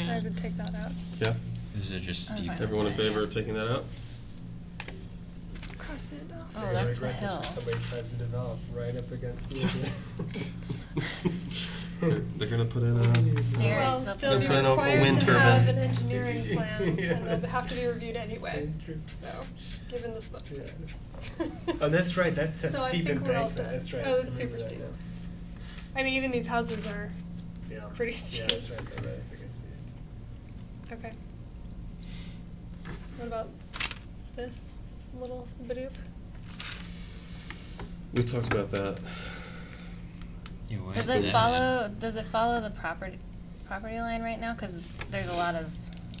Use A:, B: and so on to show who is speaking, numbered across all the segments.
A: I would take that out.
B: Yeah,
C: These are just
D: I'm
C: steep.
D: fine.
B: everyone in favor of taking that out?
A: Cross it off.
D: Oh,
E: You're gonna
D: that's the
E: regret this
D: hill.
E: when Somebody tries to develop right up against the.
B: They're they're gonna put uh, in a,
D: Stairs.
A: Well,
D: they'll
A: they'll be
D: put in a
A: required
B: wind
A: to have an
B: turbine.
A: engineering plan, and
E: Yeah.
A: they'll have to be reviewed anyway,
E: That's true.
A: so, given the slope.
E: Yeah. Oh, that's right, that's that
A: So I
E: steep
A: think we're all
E: embankment,
A: set.
E: that's right.
A: Oh,
E: I
A: that's super
E: remember that
A: steep.
E: now.
A: I mean, even these houses are,
E: Yeah.
A: Pretty
E: Yeah,
A: steep.
E: that's right, they're right up against it.
A: okay. What about this little bidoop?
B: we talked about that.
C: Yeah, what
D: Does
C: happened
D: it
C: to that?
D: follow, does it follow the property, property line right now? Cause there's a lot of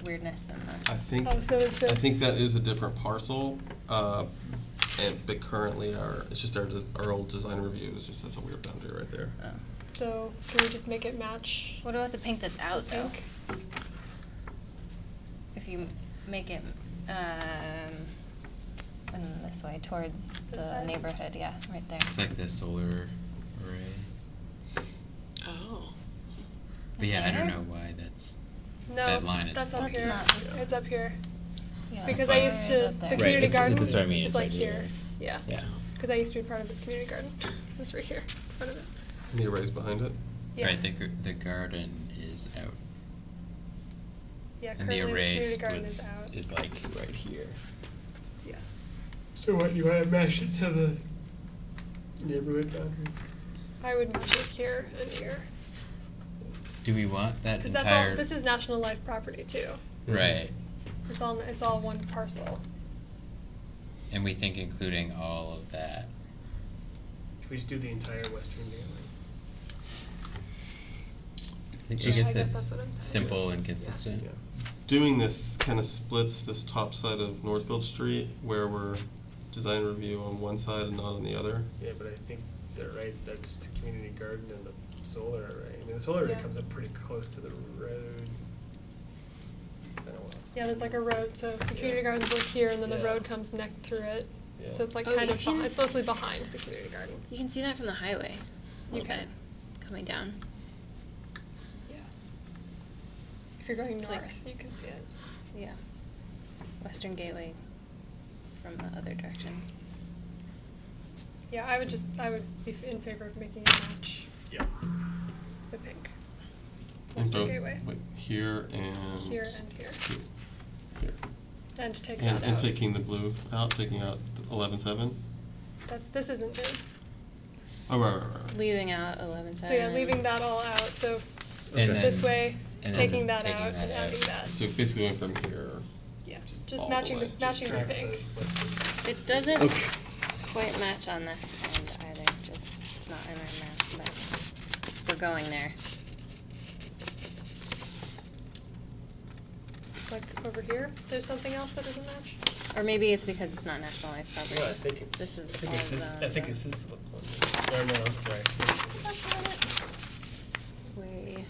D: weirdness in
B: I
D: that.
B: think, I
A: Oh, so is this?
B: think that is a different parcel, uh, and, but currently our, it's just our, de- our old design review, it's just, that's a weird boundary right there.
D: Oh.
A: So, can we just make it match?
D: What about the pink that's out though?
A: Pink?
D: If you make it, um, in this way towards
A: This
D: the
A: side?
D: neighborhood, yeah, right there.
C: It's like the solar array.
F: Oh.
C: But yeah, I don't
D: There?
C: know why that's.
A: No,
C: That line is-
A: that's up
D: That's
A: here,
D: not this- Oh,
A: it's up here,
D: Yeah,
A: because
D: it's
A: I
D: like-
A: used
D: it's
A: to,
D: up
A: the
D: there.
A: community
C: it's-
A: garden,
C: it's-
A: it's
C: that's what I mean, it's
A: like
C: right here.
A: here, yeah.
C: Yeah.
A: Because I used to be part of this community garden, it's right here, in front of it.
B: And The array's behind it?
A: Yeah.
C: Right, the, gar- the garden is out.
A: Yeah,
C: and the
A: currently the
C: array
A: community garden
C: splits,
A: is out.
C: is like right here.
A: Yeah.
E: So what, you wanna mesh it to the neighborhood boundary?
A: I would match it here and here,
C: Do we want that
A: because
C: entire?
A: that's all, this is national life property too.
C: Right,
A: It's all, it's all one parcel.
C: and we think including all of that.
E: Should we just do the entire western gateway?
C: I
A: Yeah, I guess
C: guess
A: that's what I'm
C: that's
A: saying.
C: simple and consistent.
B: Doing this kind of splits this top side of Northfield Street where we're design review on one side and not on the other.
E: Yeah, but I think they're right, that's the community garden and the solar array, I mean, the solar array
A: Yeah.
E: comes up pretty close to the road. It's been a while.
A: Yeah, there's like a road, so the community
E: Yeah.
A: garden's like here, and then the
E: Yeah.
A: road comes neck through it. So
E: Yeah.
A: it's like
F: Oh,
A: kind
F: you
A: of,
F: can
A: beh- it's mostly
F: s-
A: behind the community garden.
F: You can see that from the highway. a
A: You
F: little
A: can.
F: bit, Coming down.
A: Yeah. If you're going
D: It's like-
A: north, you can see it.
D: Yeah. Western Gateway from the other direction.
A: Yeah, I would just, I would be f- in favor of making it match
E: Yeah.
A: the pink.
B: In
A: Western
B: both-
A: Gateway.
B: wait, Here and.
A: Here and here.
B: Here.
A: And to take
B: And,
A: that
B: and
A: out.
B: taking the blue out, taking out eleven seven.
A: That's, this isn't it.
B: Oh, right, right, right, right.
D: Leaving out eleven seven.
A: So yeah, leaving that all out, so
B: Okay.
C: And then.
A: this way,
C: and then
A: taking that
C: taking
A: out
C: that
A: and
C: out.
A: adding that.
B: So basically going from here.
A: Yeah,
B: just all
A: just
B: the
A: matching,
B: way.
A: the
B: Just
A: matching the
E: Track
A: pink.
E: western-
D: It doesn't
B: Okay.
D: quite match on this end either, just, it's not in our map, but we're going there.
A: Like over here, there's something else that doesn't match?
D: Or maybe it's because it's not National Life property.
E: Well, I think it's.
D: This is
E: I think
D: all
E: it's this.
D: zoned,
E: I think
D: right?
E: it's this one. Or no, I'm sorry.
D: Way,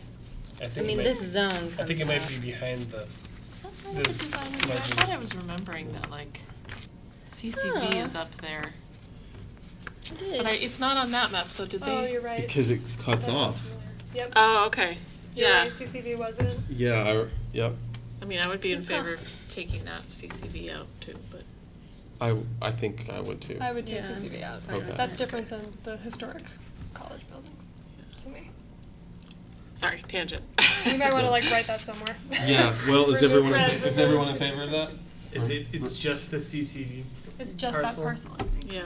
E: I
D: I
E: think. it
D: mean,
E: might-
D: this zone
E: I think
D: comes
E: it might
D: out.
E: be behind the.
F: I
E: The legend.
F: thought I was remembering that like CCB is
D: Huh.
F: up there,
D: It
F: but I,
D: is.
F: it's not on that map. So did
A: Oh,
F: they?
A: you're right.
B: Because it
A: That
B: cuts
A: sounds
B: off.
A: familiar. Yep.
F: Oh, okay.
A: You're
F: Yeah.
A: right, CCV wasn't.
B: Yeah, I, yep.
F: I mean, I would be in
D: Huh.
F: favor of taking that CCB out too, but
B: I, I think I would too.
A: I would take
F: Yeah.
A: CCV out.
D: Fine
B: Okay.
D: with
A: That's
D: that.
A: different than the historic college buildings, to me.
F: sorry, tangent.
A: You might wanna like write that somewhere.
B: Yeah, well, is
A: Remove
B: everyone, in
A: red,
B: fa- is
A: remove
B: everyone in
A: CCV.
B: favor of that?
E: It's it. It's just the CCD.
A: It's just that
E: Parcel.
A: parcel, I think.
F: yeah.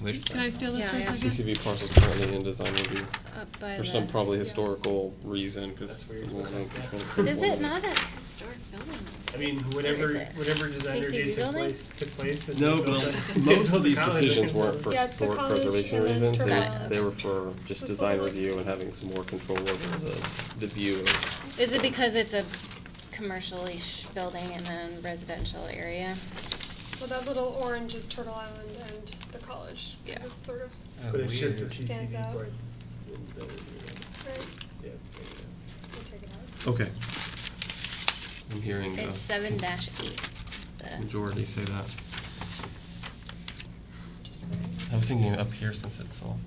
C: Which
F: Can I steal this
D: Yeah,
F: for a
D: yeah.
F: second?
B: CCV parcel's currently in design review
D: Up Uh, by
B: for some
D: the-
B: probably historical reason, because.
E: That's weird. Okay.
D: Is it not a historic building?
E: I mean, whatever
D: is it?
E: whatever designer
D: CCD
E: did took
D: building?
E: place took place. And
B: No,
E: they built
B: but
E: the- they
B: most
E: built
B: of
E: the
B: these
E: college,
B: decisions
E: they
B: weren't
E: can-
B: for
A: Yeah, it's the
B: historic
A: college
B: preservation
A: and then
B: reasons, they
A: Got
B: were,
D: it.
B: they were for just
A: For
B: design
A: public.
B: review and having some more control over the, the view of.
D: Is it because it's a commercial-ish building in a residential area?
A: Well, that little orange is Turtle Island and the college, cause
F: Yeah.
A: it's sort of,
E: But it's just the
A: Stands
E: CCD
A: out.
E: part. that's in zone, you
A: right,
E: know. Yeah, it's big enough.
A: we'll take it out.
B: Okay. I'm hearing
D: It's
B: the
D: seven dash uh, eight, the,
B: majority say that.
A: Just write it.
B: I was thinking up here since it's all